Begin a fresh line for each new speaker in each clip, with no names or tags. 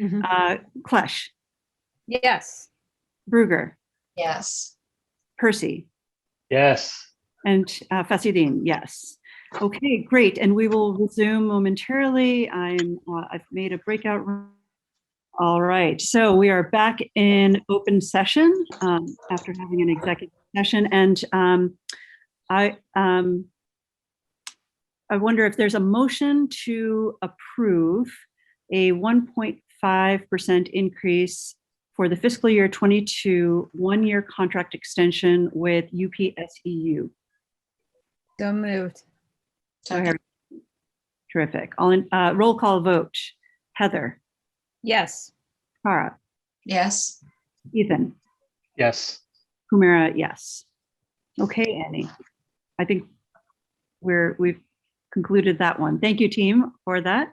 Mhm.
Uh, Klesch,
Yes.
Bruger,
Yes.
Percy,
Yes.
and uh, Fasidin, yes. Okay, great. And we will resume momentarily. I'm, uh, I've made a breakout room. All right, so we are back in open session um, after having an executive session. And um, I, um, I wonder if there's a motion to approve a 1.5% increase for the fiscal year 22 one-year contract extension with UPSEU.
So moved.
Harry. Terrific. All in, uh, roll call vote. Heather,
Yes.
Cara,
Yes.
Ethan,
Yes.
Humira, yes. Okay, Annie. I think we're, we've concluded that one. Thank you, team, for that.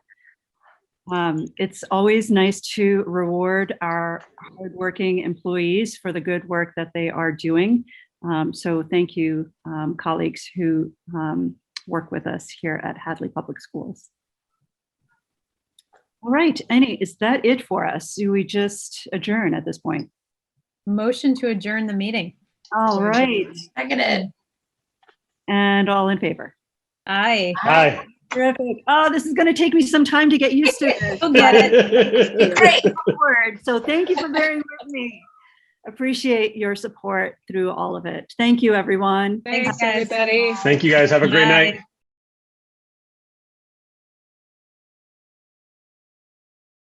Um, it's always nice to reward our hardworking employees for the good work that they are doing. Um, so thank you, um, colleagues who, um, work with us here at Hadley Public Schools. All right, Annie, is that it for us? Do we just adjourn at this point?
Motion to adjourn the meeting.
All right.
Seconded.
And all in favor?
Aye.
Hi.
Terrific. Oh, this is going to take me some time to get used to it.
You'll get it.
Great.
Word. So thank you for bearing with me. Appreciate your support through all of it. Thank you, everyone.
Thanks,
Thanks, everybody.
Thank you guys. Have a great
Bye.
night.